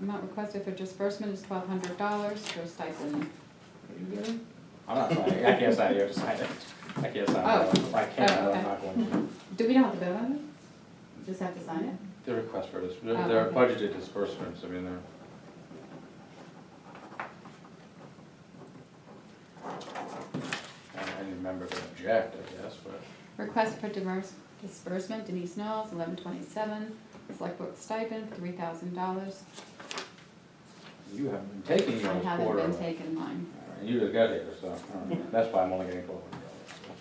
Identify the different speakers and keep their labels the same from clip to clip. Speaker 1: amount requested for disbursement is twelve hundred dollars for stipend. Are you really?
Speaker 2: I'm not signing, I can't sign, you have to sign it. I can't sign it, I can't,
Speaker 1: Oh,
Speaker 2: I'm
Speaker 1: okay.
Speaker 2: not going to.
Speaker 1: Do we not have the bill on it? Just have to sign it?
Speaker 2: The request for this,
Speaker 1: Oh,
Speaker 2: they're they're
Speaker 1: okay.
Speaker 2: budgeted disbursements, I mean, they're. I didn't remember to object, I guess, but.
Speaker 1: Request for divers- disbursement Denise Knowles, eleven twenty-seven, select book stipend, three thousand dollars.
Speaker 2: You haven't been taking
Speaker 1: I
Speaker 2: yours
Speaker 1: haven't
Speaker 2: quarterly.
Speaker 1: been taking mine.
Speaker 2: All right, You just got here, so, all right, that's why I'm only getting twelve hundred dollars.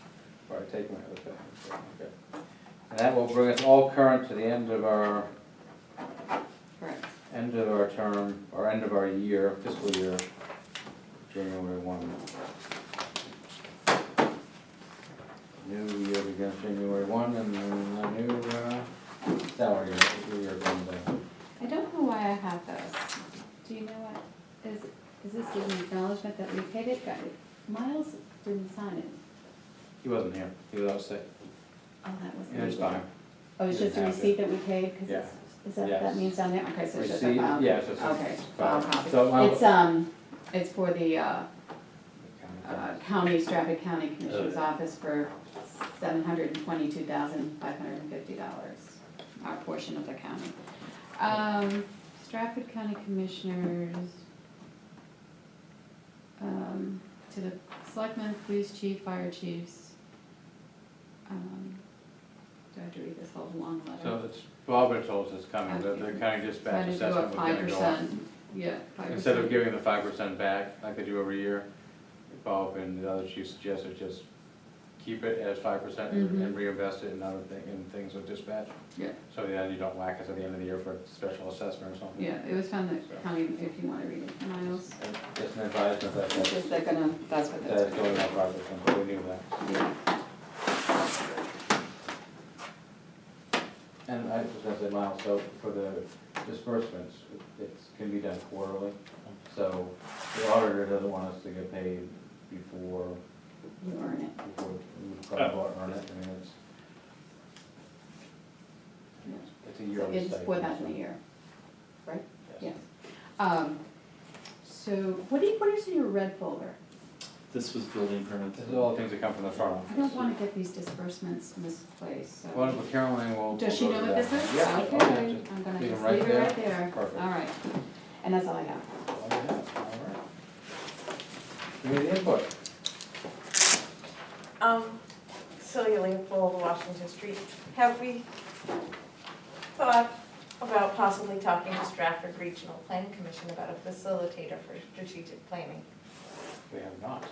Speaker 2: Probably take my other thing. so, okay. And that will bring us all current to the end of our,
Speaker 1: Correct.
Speaker 2: end of our term, or end of our year, fiscal year, January one. New year begins January one, and then the new, uh, salary year, fiscal year comes in.
Speaker 1: I don't know why I have those. Do you know what, is, is this an acknowledgement that we paid it? Got it. Miles didn't sign it.
Speaker 2: He wasn't here, he was out sick.
Speaker 1: Oh, that was.
Speaker 2: It's fine.
Speaker 1: Oh, it's just a
Speaker 2: Didn't have
Speaker 1: receipt that we paid, cause it's, is that, what
Speaker 2: Yes.
Speaker 1: that means down there? Okay, so it's just a
Speaker 2: Receipt,
Speaker 1: file.
Speaker 2: yeah, it's just a
Speaker 1: Okay,
Speaker 2: file.
Speaker 1: file copy.
Speaker 2: So, I'll-
Speaker 1: It's, um, it's for the, uh, uh, county, Stratford County Commissioner's
Speaker 2: Okay.
Speaker 1: Office for seven hundred and twenty-two thousand, five hundred and fifty dollars, our portion of the county. Um, Stratford County Commissioners, um, to the selectmen, police chief, fire chiefs. Um, Do I have to read this whole long letter?
Speaker 2: So it's, Bob had told us it's coming, the, the county dispatch
Speaker 1: Trying to do a
Speaker 2: assessment was
Speaker 1: five
Speaker 2: gonna go up.
Speaker 1: percent, yeah, five percent.
Speaker 2: Instead of giving the five percent back, like they do every year, Bob and the other chief suggested just keep it as five percent and
Speaker 1: Mhm.
Speaker 2: reinvest it in other thing, in things with dispatch.
Speaker 1: Yeah.
Speaker 2: So then you don't whack us at the end of the year for a special assessment or something.
Speaker 1: Yeah, it was found that county, if you wanna read it, Miles,
Speaker 2: Just an advisement that,
Speaker 1: it's
Speaker 2: that,
Speaker 1: just they're gonna, that's what that's.
Speaker 2: that's going up five percent, but we knew that.
Speaker 1: Yeah.
Speaker 2: And I was gonna say, Miles, so for the disbursements, it's, can be done quarterly. So the auditor doesn't want us to get paid before,
Speaker 1: You earn it,
Speaker 2: before we probably earn it, I mean, it's. It's a yearly
Speaker 1: it's
Speaker 2: stipend.
Speaker 1: four thousand a year, right?
Speaker 2: Yes.
Speaker 1: Yes. Um, so, what do you, what is in your red folder?
Speaker 3: This was building permits.
Speaker 2: This is all the things that come from the
Speaker 1: I
Speaker 2: front office.
Speaker 1: don't wanna get these disbursements misplaced, so.
Speaker 2: Well, but Caroline will.
Speaker 1: Does she
Speaker 2: will
Speaker 1: know
Speaker 2: go
Speaker 1: what
Speaker 2: to
Speaker 1: this
Speaker 2: that.
Speaker 1: is?
Speaker 2: Yeah.
Speaker 1: Okay,
Speaker 2: I'll just-
Speaker 1: I'm gonna
Speaker 2: leave 'em
Speaker 1: just
Speaker 2: right
Speaker 1: leave it
Speaker 2: there.
Speaker 1: right there,
Speaker 2: Perfect.
Speaker 1: alright, and that's all I have.
Speaker 2: All right, all right. Community input.
Speaker 4: Um, Celia Leopold, Washington Street. Have we thought about possibly talking to Stratford Regional Planning Commission about a facilitator for strategic planning?
Speaker 2: We have not.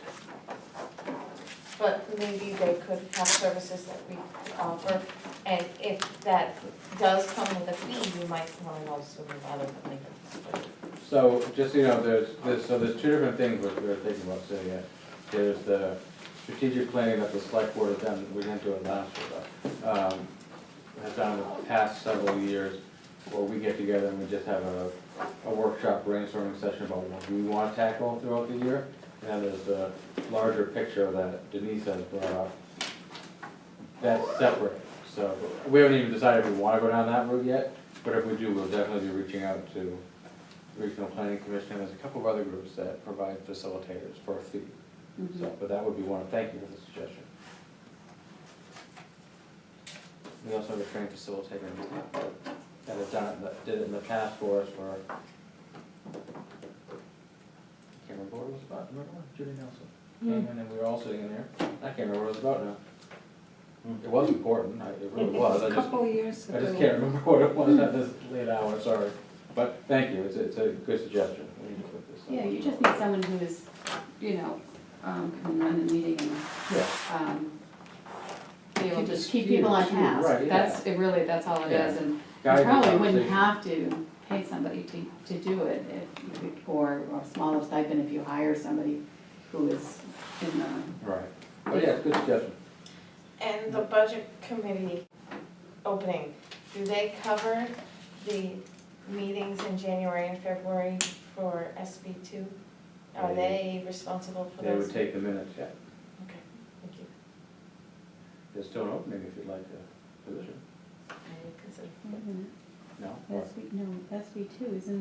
Speaker 4: But maybe they could have services that we offer, and if that does come with a fee, you might want to know sooner rather than later.
Speaker 2: So, just so you know, there's, there's, so there's two different things we're, we're thinking about setting it. There's the strategic planning that the select board has done, we didn't do it last year, but, um, has done the past several years, where we get together and we just have a, a workshop brainstorming session about what we want to tackle throughout the year. And then there's the larger picture that Denise has brought up. That's separate, so, we haven't even decided if we wanna go down that route yet, but if we do, we'll definitely be reaching out to Regional Planning Commission, and there's a couple of other groups that provide facilitators for a fee.
Speaker 1: Mhm.
Speaker 2: So, but that would be one, thank you for the suggestion. We also have a trained facilitator in town that has done it, that did it in the past for us for. I Can't remember what it was about, remember, Judy Nelson came in and we were all sitting in there, I can't remember what it was about now. It was important, I- it really was, I just.
Speaker 5: years
Speaker 2: I just can't remember what it was at this late hour, sorry. But thank you, it's, it's a good suggestion. We need to put this on.
Speaker 1: Yeah, you just need someone who is, you know, um, can run the meeting and
Speaker 2: Yeah,
Speaker 1: um, be able
Speaker 2: Keep
Speaker 1: to
Speaker 2: it
Speaker 1: keep people on
Speaker 2: skewed, skewed,
Speaker 1: task.
Speaker 2: right, yeah.
Speaker 1: That's, it really, that's all it
Speaker 2: Yeah.
Speaker 1: is, and you
Speaker 2: guide the
Speaker 1: probably wouldn't
Speaker 2: conversation.
Speaker 1: have to pay somebody to, to do it, if you could- or, or smaller stipend if you hire somebody who is in the,
Speaker 2: Right, but yeah, it's a good suggestion.
Speaker 4: And the budget committee opening, do they cover the meetings in January and February for SB two? Are they responsible for
Speaker 2: They
Speaker 4: those?
Speaker 2: would take the minutes, yeah.
Speaker 4: Okay, thank you.
Speaker 2: There's still an opening if you'd like the position.
Speaker 1: Mm-hmm.
Speaker 4: I would consider.
Speaker 2: No? Or-
Speaker 1: SB, no, SB two, isn't